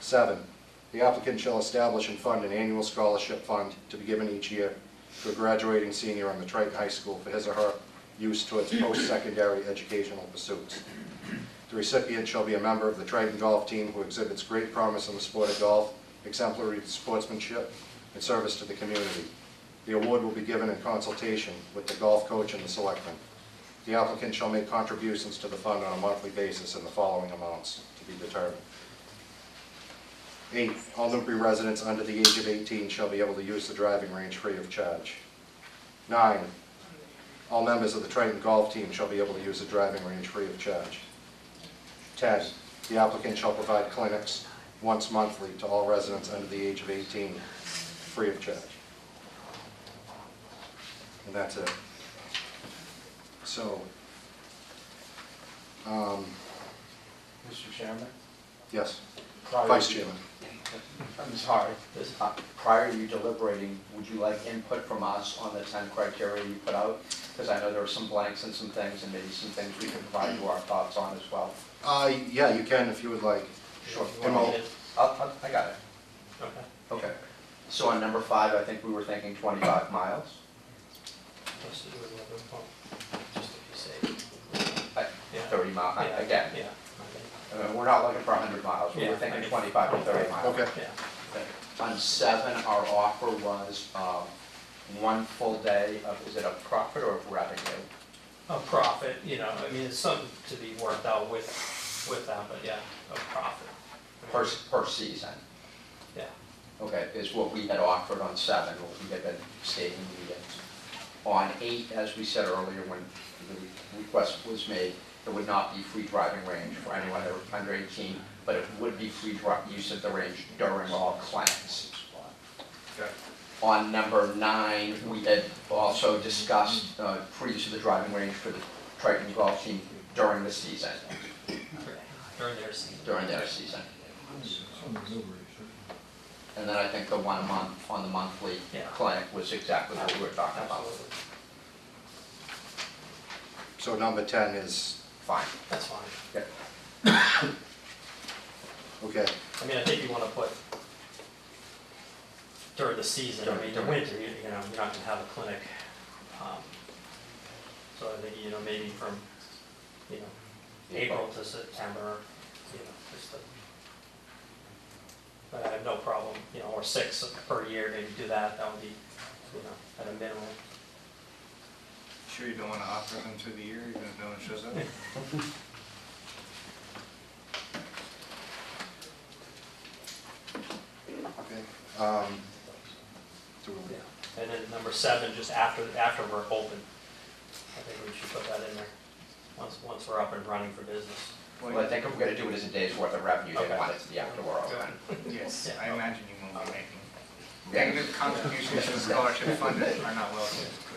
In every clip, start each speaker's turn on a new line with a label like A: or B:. A: Seven, the applicant shall establish and fund an annual scholarship fund to be given each year to a graduating senior on the Triton High School for his or her use towards post-secondary educational pursuits. The recipient shall be a member of the Triton Golf Team who exhibits great promise in the sport of golf, exemplary sportsmanship, and service to the community. The award will be given in consultation with the golf coach and the selectmen. The applicant shall make contributions to the fund on a monthly basis in the following amounts to be determined. Eight, all Newbury residents under the age of 18 shall be able to use the driving range free of charge. Nine, all members of the Triton Golf Team shall be able to use the driving range free of charge. 10, the applicant shall provide clinics once monthly to all residents under the age of 18, free of charge. And that's it. So, um,
B: Mr. Chairman?
A: yes,
B: prior-
A: Vice Chairman.
B: I'm sorry, this, uh, prior to you deliberating, would you like input from us on the ten criteria you put out? Because I know there are some blanks and some things, and maybe some things we can provide you our thoughts on as well.
A: Uh, Yeah, you can if you would like.
B: Sure.
A: Come
B: I'll-
A: on.
B: I'll- I got it.
C: Okay.
B: Okay. So on number five, I think we were thinking twenty-five miles.
C: Let's do another one, just to be safe.
B: Like
C: Yeah.
B: Thirty mile, I-
C: Yeah,
B: again,
C: Yeah.
B: I mean, we're not looking for hundred miles, we
C: Yeah,
B: were
C: I
B: thinking
C: mean-
B: twenty-five to thirty miles.
A: Okay,
C: Yeah.
B: On seven, our offer was um, one full day of, is it a profit or of revenue?
C: A profit, you know, I mean, it's something to be worked out with, with them, but yeah, a profit.
B: Per, per season,
C: Yeah,
B: okay, is what we had offered on seven, what we had been stating we had. On eight, as we said earlier, when the request was made, it would not be free driving range for anyone that were under eighteen, but it would be free dri- use of the range during all clients. On number nine, we had also discussed uh, free use of the driving range for the Triton golf team during the season,
C: during their season.
B: during their season. And then I think the one a month, on the monthly
C: Yeah.
B: clinic was exactly what we were talking about.
C: Absolutely,
A: so number 10 is,
B: Fine.
C: that's fine.
B: Yeah.
A: okay,
C: I mean, I think you wanna put during the season, I mean, the winter, you you know, you're not gonna have a clinic. um, So I think, you know, maybe from, you know, April to September, you know, just the, but I have no problem, you know, or six per year, maybe do that, that would be, you know, at a minimum.
D: Sure you don't want to offer them through the year, even if no one shows up?
A: okay. um, do we-
C: Yeah. And then number seven, just after, after we're open, I think we should put that in there, once, once we're up and running for business.
B: Well, I think if we're gonna do it as a day's worth of revenue, they
C: Okay.
B: want it to be after we're open.
D: Yes, I imagine you won't be making.
B: Yeah.
D: Negative contributions to the scholarship fund that are not welcome.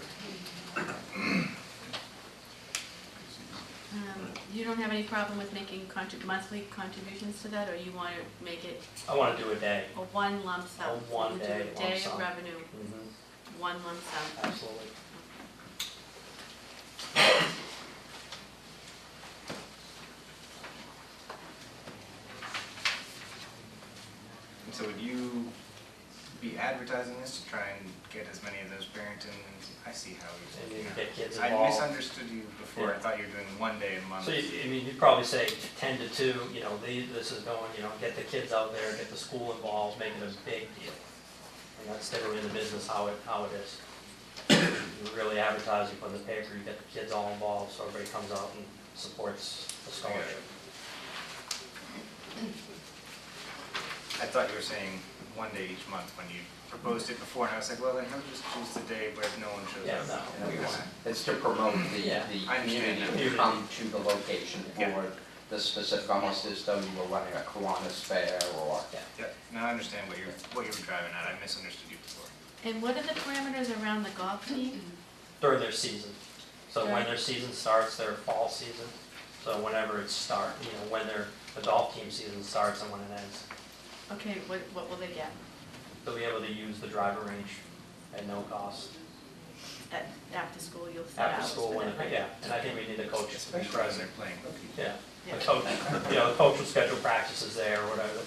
E: Um, You don't have any problem with making contri- monthly contributions to that, or you want to make it
C: I wanna do a day.
E: a one lump sum?
C: A one
E: You do
C: day lump
E: a day
C: sum.
E: of revenue, one lump sum.
C: Absolutely.
D: And so would you be advertising this to try and get as many of those Barrington, I see how
C: And
D: you're
C: you
D: thinking.
C: get kids
D: I
C: involved.
D: misunderstood you before, I thought you were doing one day a month.
C: So, you- I mean, you'd probably say ten to two, you know, the- this is going, you know, get the kids out there, get the school involved, make it a big deal. And that's still in the business how it, how it is. You really advertise, you put in the paper, you get the kids all involved, so everybody comes out and supports the scholarship.
D: I thought you were saying one day each month when you proposed it before, and I was like, well, then he'll just choose the day where no one shows
C: Yeah,
D: up.
C: no,
D: We want-
B: It's to promote the,
C: Yeah.
B: the
D: I understand
B: community to
C: that.
B: come to the location
D: Yeah.
B: for the specific, almost as though you were running a Kiwanis fair or.
D: Yeah, now I understand what you're, what you were driving at, I misunderstood you before.
E: And what are the parameters around the golf team?
C: During their season. So when their season starts, their fall season, so whenever it start, you know, when their adult team season starts and when it ends.
E: Okay, what, what will they get
C: They'll be able to use the driver range at no cost.
E: at, after school, you'll set out?
C: after school, when, yeah, and I think we need a coach to be
D: Especially as
C: present.
D: they're playing.
C: Yeah, a coach, you know, the coach will schedule practices there or whatever,